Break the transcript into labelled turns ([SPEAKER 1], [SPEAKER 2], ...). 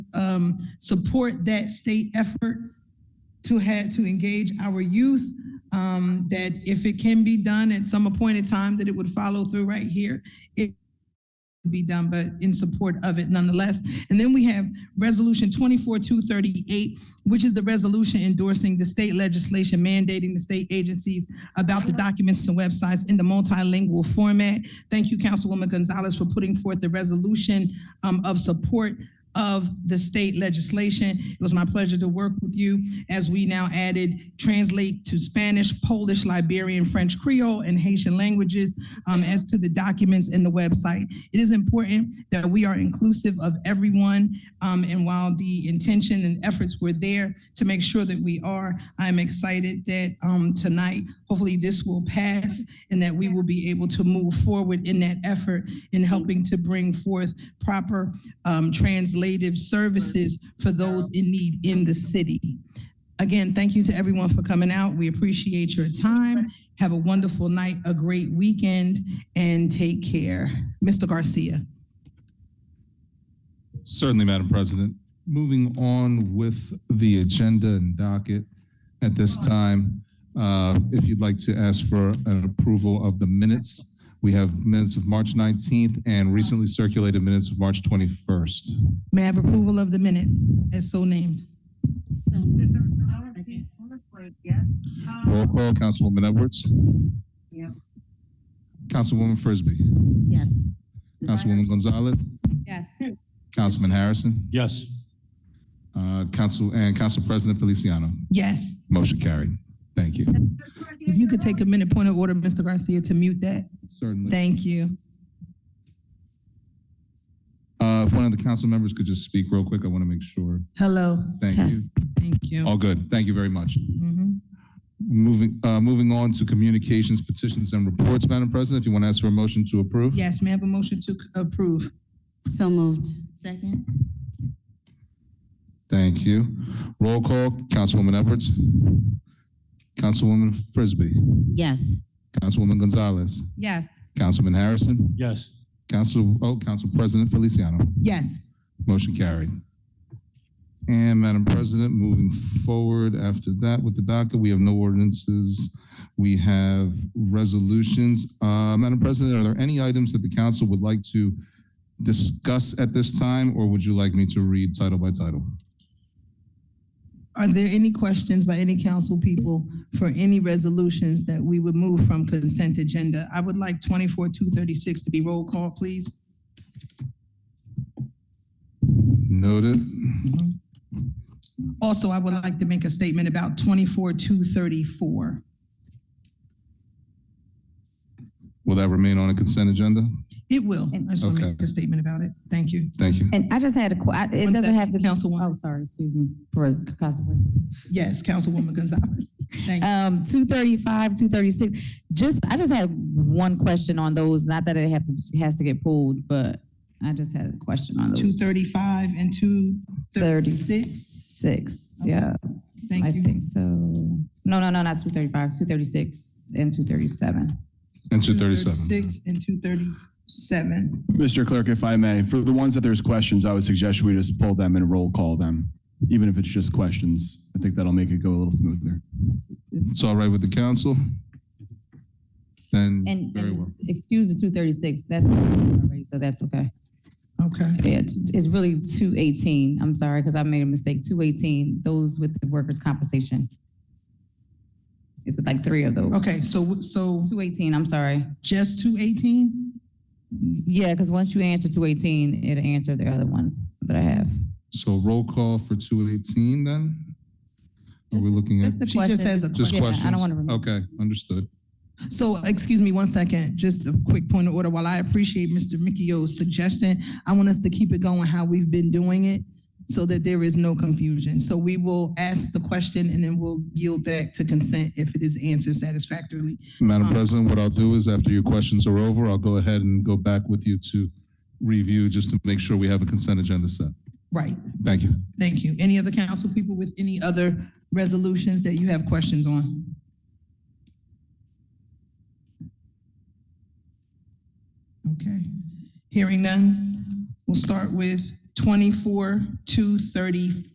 [SPEAKER 1] um, support that state effort to have, to engage our youth. Um, that if it can be done at some appointed time, that it would follow through right here. It would be done, but in support of it nonetheless. And then we have Resolution twenty-four two thirty-eight, which is the resolution endorsing the state legislation mandating the state agencies about the documents and websites in the multilingual format. Thank you, Councilwoman Gonzalez, for putting forth the resolution um, of support of the state legislation. It was my pleasure to work with you as we now added translate to Spanish, Polish, Liberian, French, Creole, and Haitian languages um, as to the documents in the website. It is important that we are inclusive of everyone. um, and while the intention and efforts were there to make sure that we are, I'm excited that um, tonight, hopefully, this will pass and that we will be able to move forward in that effort in helping to bring forth proper um, translative services for those in need in the city. Again, thank you to everyone for coming out. We appreciate your time. Have a wonderful night, a great weekend, and take care. Mr. Garcia.
[SPEAKER 2] Certainly, Madam President. Moving on with the agenda and docket at this time, uh, if you'd like to ask for an approval of the minutes, we have minutes of March 19th and recently circulated minutes of March 21st.
[SPEAKER 1] May I have approval of the minutes as so named?
[SPEAKER 3] Yes.
[SPEAKER 2] Roll call, Councilwoman Edwards.
[SPEAKER 3] Yeah.
[SPEAKER 2] Councilwoman Frisbee.
[SPEAKER 4] Yes.
[SPEAKER 2] Councilwoman Gonzalez.
[SPEAKER 4] Yes.
[SPEAKER 2] Councilman Harrison.
[SPEAKER 5] Yes.
[SPEAKER 2] uh, Council, and Council President Feliciano.
[SPEAKER 1] Yes.
[SPEAKER 2] Motion carried. Thank you.
[SPEAKER 1] If you could take a minute, point of order, Mr. Garcia, to mute that.
[SPEAKER 2] Certainly.
[SPEAKER 1] Thank you.
[SPEAKER 2] Uh, If one of the council members could just speak real quick, I want to make sure.
[SPEAKER 1] Hello.
[SPEAKER 2] Thank you.
[SPEAKER 1] Yes. Thank you.
[SPEAKER 2] All good. Thank you very much.
[SPEAKER 1] Mhm.
[SPEAKER 2] Moving, uh, moving on to communications, petitions, and reports, Madam President, if you want to ask for a motion to approve.
[SPEAKER 1] Yes, may I have a motion to approve?
[SPEAKER 4] So moved. Second?
[SPEAKER 2] Thank you. Roll call, Councilwoman Edwards. Councilwoman Frisbee.
[SPEAKER 4] Yes.
[SPEAKER 2] Councilwoman Gonzalez.
[SPEAKER 1] Yes.
[SPEAKER 2] Councilman Harrison.
[SPEAKER 5] Yes.
[SPEAKER 2] Council, oh, Council President Feliciano.
[SPEAKER 1] Yes.
[SPEAKER 2] Motion carried. And Madam President, moving forward after that with the docket, we have no ordinances. We have resolutions. Uh, Madam President, are there any items that the council would like to discuss at this time, or would you like me to read title by title?
[SPEAKER 1] Are there any questions by any council people for any resolutions that we would move from consent agenda? I would like twenty-four, two thirty-six to be roll call, please.
[SPEAKER 2] Noted.
[SPEAKER 1] Also, I would like to make a statement about twenty-four, two thirty-four.
[SPEAKER 2] Will that remain on a consent agenda?
[SPEAKER 1] It will. I just want to make
[SPEAKER 2] Okay.
[SPEAKER 1] a statement about it. Thank you.
[SPEAKER 2] Thank you.
[SPEAKER 6] And I just had a, que- I- it
[SPEAKER 1] One
[SPEAKER 6] doesn't
[SPEAKER 1] second,
[SPEAKER 6] have to be.
[SPEAKER 1] Councilwoman.
[SPEAKER 6] Oh, sorry, excuse me, for Councilwoman.
[SPEAKER 1] Yes, Councilwoman Gonzalez. Thank you.
[SPEAKER 6] Um, two thirty-five, two thirty-six, just, I just had one question on those, not that it have to, has to get pulled, but I just had a question on those.
[SPEAKER 1] Two thirty-five and two thirty-six.
[SPEAKER 6] Thirty-six, yeah, I
[SPEAKER 1] Thank you.
[SPEAKER 6] think so. No, no, no, not two thirty-five, two thirty-six and two thirty-seven.
[SPEAKER 2] And 237.
[SPEAKER 1] Six and two thirty-seven.
[SPEAKER 7] Mr. Clerk, if I may, for the ones that there's questions, I would suggest we just pull them and roll call them, even if it's just questions. I think that'll make it go a little smoother.
[SPEAKER 2] It's all right with the council? Then,
[SPEAKER 6] And,
[SPEAKER 2] very well.
[SPEAKER 6] and excuse the two thirty-six, that's, already, so that's okay.
[SPEAKER 1] Okay.
[SPEAKER 6] Yeah, it's, it's really two eighteen, I'm sorry, because I made a mistake, two eighteen, those with the workers' compensation. It's like three of those.
[SPEAKER 1] Okay, so, so
[SPEAKER 6] Two eighteen, I'm sorry.
[SPEAKER 1] just two eighteen?
[SPEAKER 6] Yeah, because once you answer two eighteen, it'll answer the other ones that I have.
[SPEAKER 2] So roll call for 218 then? Are we looking at?
[SPEAKER 6] Just a
[SPEAKER 1] She just
[SPEAKER 6] question.
[SPEAKER 1] has a
[SPEAKER 2] Just
[SPEAKER 6] Yeah, I don't
[SPEAKER 2] questions?
[SPEAKER 6] wanna remove-
[SPEAKER 2] Okay, understood.
[SPEAKER 1] So, excuse me one second, just a quick point of order. While I appreciate Mr. Mikio's suggestion, I want us to keep it going how we've been doing it so that there is no confusion. So we will ask the question and then we'll yield back to consent if it is answered satisfactorily.
[SPEAKER 2] Madam
[SPEAKER 6] Uh-huh.
[SPEAKER 2] President, what I'll do is after your questions are over, I'll go ahead and go back with you to review just to make sure we have a consent agenda set.
[SPEAKER 1] Right,
[SPEAKER 2] Thank you.
[SPEAKER 1] thank you. Any other council people with any other resolutions that you have questions on? Okay, hearing none, we'll start with twenty-four, two thirty